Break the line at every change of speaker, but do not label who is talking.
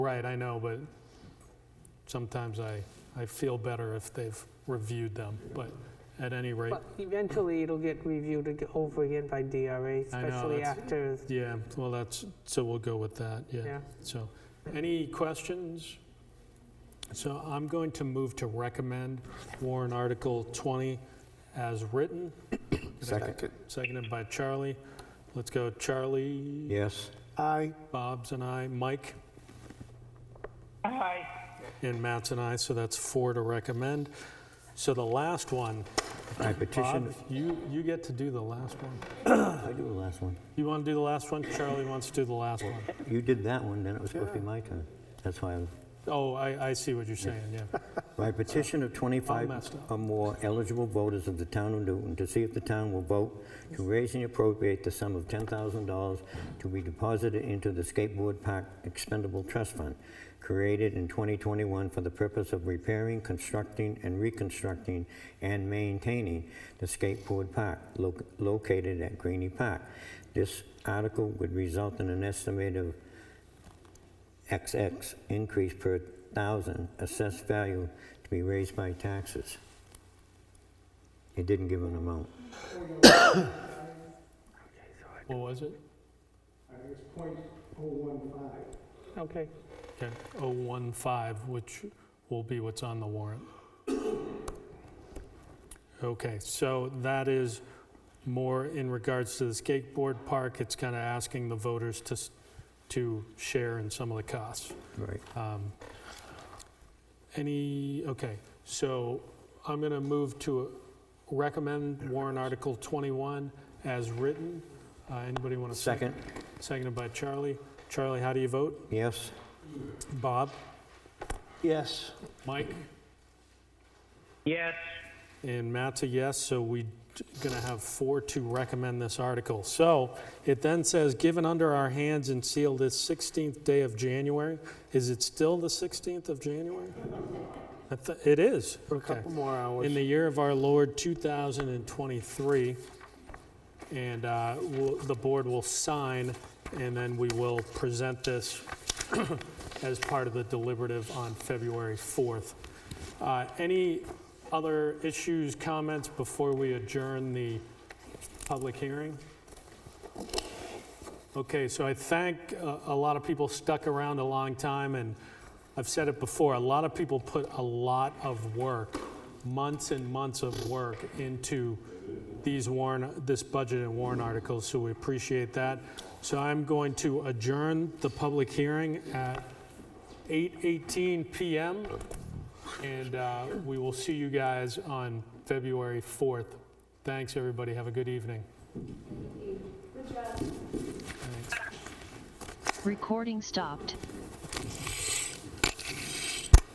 Right, I know, but sometimes I, I feel better if they've reviewed them, but at any rate,
But eventually, it'll get reviewed ag- over again by DRA, especially
that's-
after,
yeah, well, that's, so we'll go with that, yeah.
yeah.
So, any questions? So I'm going to move to recommend Warren Article 20 as written,
Second.
seconded by Charlie. Let's go Charlie,
Yes.
Aye.
Bob's and I, Mike?
Aye.
And Matt's and I, so that's four to recommend. So the last one,
I
Bob,
petition,
you, you get to do the last one.
I do the last one.
You want to do the last one? Charlie wants to do the last one.
You did that one, then it was supposed to be my turn. That's why, I'm-
Oh, I, I see what you're saying, yeah.
by petition of
I
25
messed up.
or more eligible voters of the town of Newton to see if the town will vote to raise and appropriate the sum of $10,000 to be deposited into the Skateboard Park Expendable Trust Fund, created in 2021 for the purpose of repairing, constructing, and reconstructing and maintaining the skateboard park lo- located at Greenie Park. This article would result in an estimate of XX increase per thousand assessed value to be raised by taxes. It didn't give an amount.
What was it?
Okay,
Okay, 015, which will be what's on the warrant. Okay, so that is more in regards to the skateboard park. It's kind of asking the voters to, s- to share in some of the costs.
Right.
Um, Any, okay, so I'm going to move to recommend warrant Article 21 as written. Uh, Anybody want to second?
Second,
Seconded by Charlie. Charlie, how do you vote?
yes?
Bob?
Yes.
Mike?
Yes.
And Matt's a yes, so we going to have four to recommend this article. So it then says, given under our hands and sealed this 16th day of January. Is it still the 16th of January? I thi- It is,
For a
okay.
couple more
in
hours.
the year of our Lord 2023. And uh, we'll- the board will sign, and then we will present this as part of the deliberative on February 4th. Uh, Any other issues, comments before we adjourn the public hearing? Okay, so I thank uh, a lot of people stuck around a long time, and I've said it before, a lot of people put a lot of work, months and months of work into these warrant, this budget and warrant articles, so we appreciate that. So I'm going to adjourn the public hearing at 8:18 PM, and uh, we will see you guys on February 4th. Thanks, everybody, have a good evening.
Recording stopped.